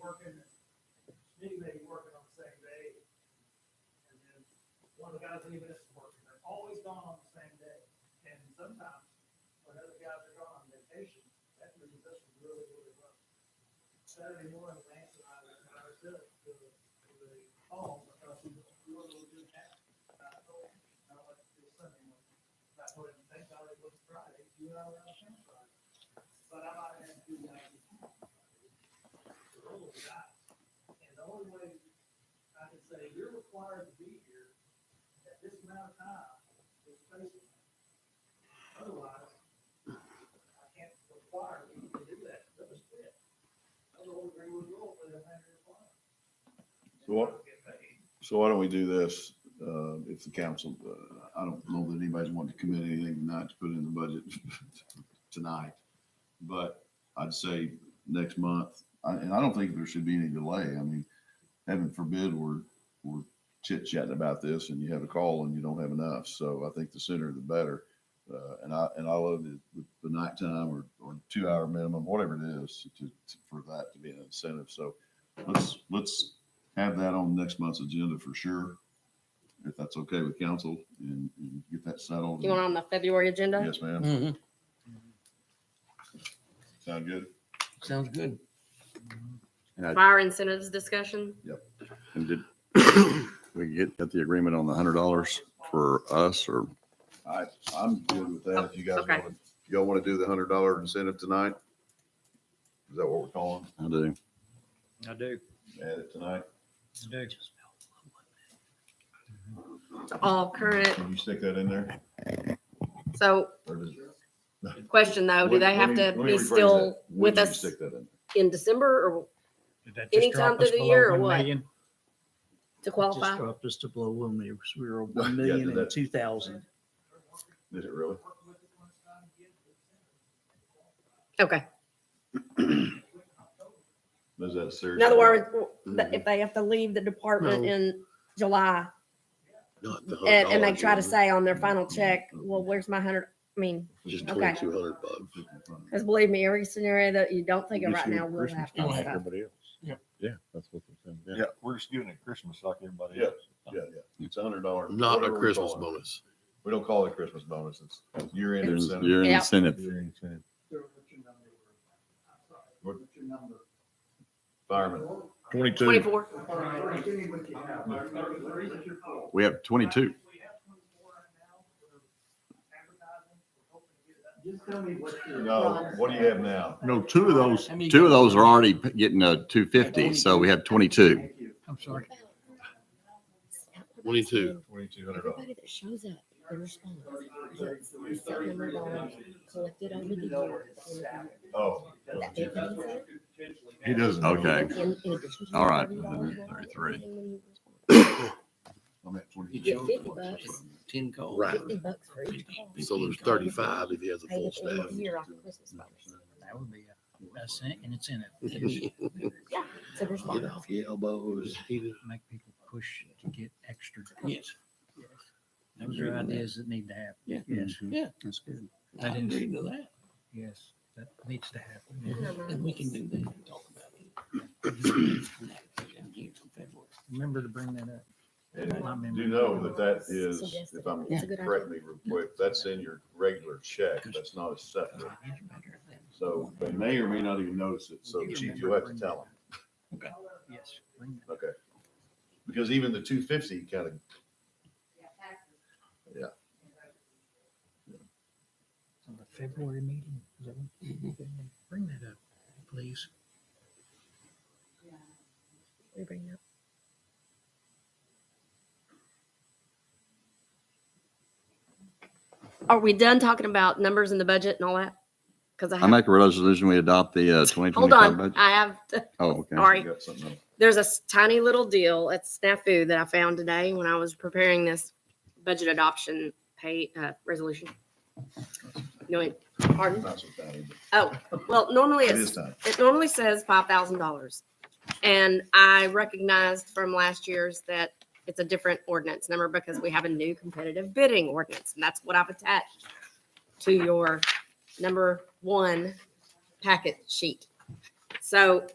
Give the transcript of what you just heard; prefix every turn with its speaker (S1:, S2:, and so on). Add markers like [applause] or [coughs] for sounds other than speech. S1: working, Smitty may be working on the same day. And then one of the guys leaving us is working, they're always gone on the same day. And sometimes, when other guys are gone on vacation, that leaves us really, really well. Saturday morning, Lance and I, and I was up to, to the home, because we were really good at, I told him, I don't like to do Sunday morning. I told him, thank God it was Friday, you and I were on Friday. But I might have to do that. The rule of God. And the only way I can say you're required to be here at this amount of time is faithful. Otherwise, I can't require you to do that. That was it. I don't agree with the rule for the hundred and one.
S2: So
S1: And I
S2: what-
S1: Get paid.
S2: So why don't we do this, uh, if the council, uh, I don't know that anybody's wanting to commit anything tonight to put in the budget [laughs] tonight. But I'd say next month, I- and I don't think there should be any delay. I mean, heaven forbid, we're, we're chit chatting about this and you have a call and you don't have enough. So I think the sooner the better. Uh, and I, and I love the, the- the nighttime or, or two hour minimum, whatever it is to, to- for that to be an incentive. So let's, let's have that on next month's agenda for sure, if that's okay with council, and, and get that settled.
S3: You want on the February agenda?
S2: Yes, ma'am.
S4: Mhm.
S2: Sound good?
S4: Sounds good.
S3: Fire incentives discussion?
S5: And did [coughs] we get, get the agreement on the hundred dollars for us or?
S2: I, I'm good with that. If you guys
S3: Okay.
S2: want, y'all want to do the hundred dollar incentive tonight? Is that what we're calling?
S5: I do.
S6: I do.
S2: Add it tonight?
S6: I do.
S3: All current.
S2: Can you stick that in there?
S3: So
S2: Or does-
S3: question though, Oh, do they have
S2: Let me-
S3: to
S2: let me
S3: be
S2: rephrase
S3: still
S2: that. When
S3: with
S2: do you
S3: us
S2: Stick that in.
S3: in December or
S6: Did that just
S3: Anytime
S6: drop us
S3: through the
S6: below
S3: year or
S6: 1
S3: what?
S6: million?
S3: to
S6: It Just
S3: qualify?
S6: dropped us to below one million. We were
S2: Yeah,
S6: one million
S2: did that-
S6: and two thousand.
S2: Is it really?
S1: Work with it when it's time to get it.
S3: Okay.
S2: Is that serious?
S3: In other words,
S7: Mm-hmm.
S3: the- if they have to leave the department in July and, and they try to say on their final
S7: Mm-hmm.
S3: check, well, where's my hundred? I mean,
S5: Just
S3: okay.
S5: hundred bucks.
S3: because believe me, every scenario that you don't think of right now will
S4: time.
S3: happen. So,
S5: Everybody else.
S4: Yep.
S5: Yeah, that's what they're saying.
S8: Yeah, we're just giving it Christmas like everybody
S2: Yeah,
S8: else.
S2: Yeah, yeah. It's a hundred dollar.
S9: Not a
S2: whatever we
S9: Christmas
S2: call it.
S9: bonus.
S2: We don't call it a Christmas bonus. It's year end
S5: There's,
S2: incentive.
S5: you're an
S3: Yeah.
S5: incentive.
S1: Sir, what's your number? I'm sorry,
S2: What?
S1: what's your number?
S2: Fireman.
S5: Twenty-two.
S3: Twenty-four.
S5: We have twenty-two.
S1: Just tell me what your.
S2: No, what do you have now?
S5: No, two of those,
S4: How many-
S5: two of those are already p- getting a two fifty, so we have twenty-two.
S6: I'm sorry.
S9: Twenty-two.
S2: Twenty-two hundred dollars.
S7: Everybody that shows up, they respond. Yes, we sell them the bond, collected over the years.
S2: Oh.
S7: That big incentive,
S2: He doesn't.
S5: Okay.
S7: in- in addition to the
S5: All right.
S7: $30 bond,
S5: Thirty-three.
S7: everything when you respond.
S2: I'm at
S4: You
S2: twenty-two.
S4: get
S7: Get fifty bucks,
S4: Ten calls.
S9: Right.
S7: fifty bucks for each call.
S9: So there's thirty-five if he has a
S7: Pay
S9: full
S7: at the end of
S9: staff.
S7: the year on Christmas bonus.
S6: That would be a, a cent and it's in
S3: [laughs]
S6: it.
S7: Yeah, so there's
S9: Get
S7: bonus.
S9: off your elbows. He-
S6: Make people push to get extra.
S4: Yes.
S6: Those are ideas that need to happen.
S4: Yeah.
S6: Yes,
S4: Yeah.
S6: that's good.
S4: I didn't read to that.
S6: Yes, that needs to happen.
S4: And we can do that and talk about it.
S6: Remember to bring that up.
S2: And do know that that is, if I'm,
S7: It's a good idea.
S2: correct me real quick, that's in your regular check, that's not a separate. So they may or may not even notice it, so chief, you'll have to tell them.
S6: Yes. bring that.
S2: Okay. Because even the two fifty kind of,
S6: On the February meeting. is that
S3: Mm-hmm.
S6: when- Bring that up, please.
S7: We bring that.
S3: Are we done talking about numbers in the budget and all that? Because I
S5: I
S3: have,
S5: make a resolution, we adopt the uh, twenty
S3: hold
S5: twenty-five
S3: on,
S5: budget.
S3: I have,
S5: Oh, okay.
S3: sorry.
S2: you got something else.
S3: there's a s- tiny little deal at snafu that i found today when i was preparing this budget adoption pay uh, resolution you want pardon
S2: Not so bad, but
S3: oh well normally
S2: It is
S3: it's,
S2: time.
S3: it normally says $5000 and i recognized from last year's that it's a different ordinance number because we have a new competitive bidding ordinance and that's what i've attached to your number one packet sheet so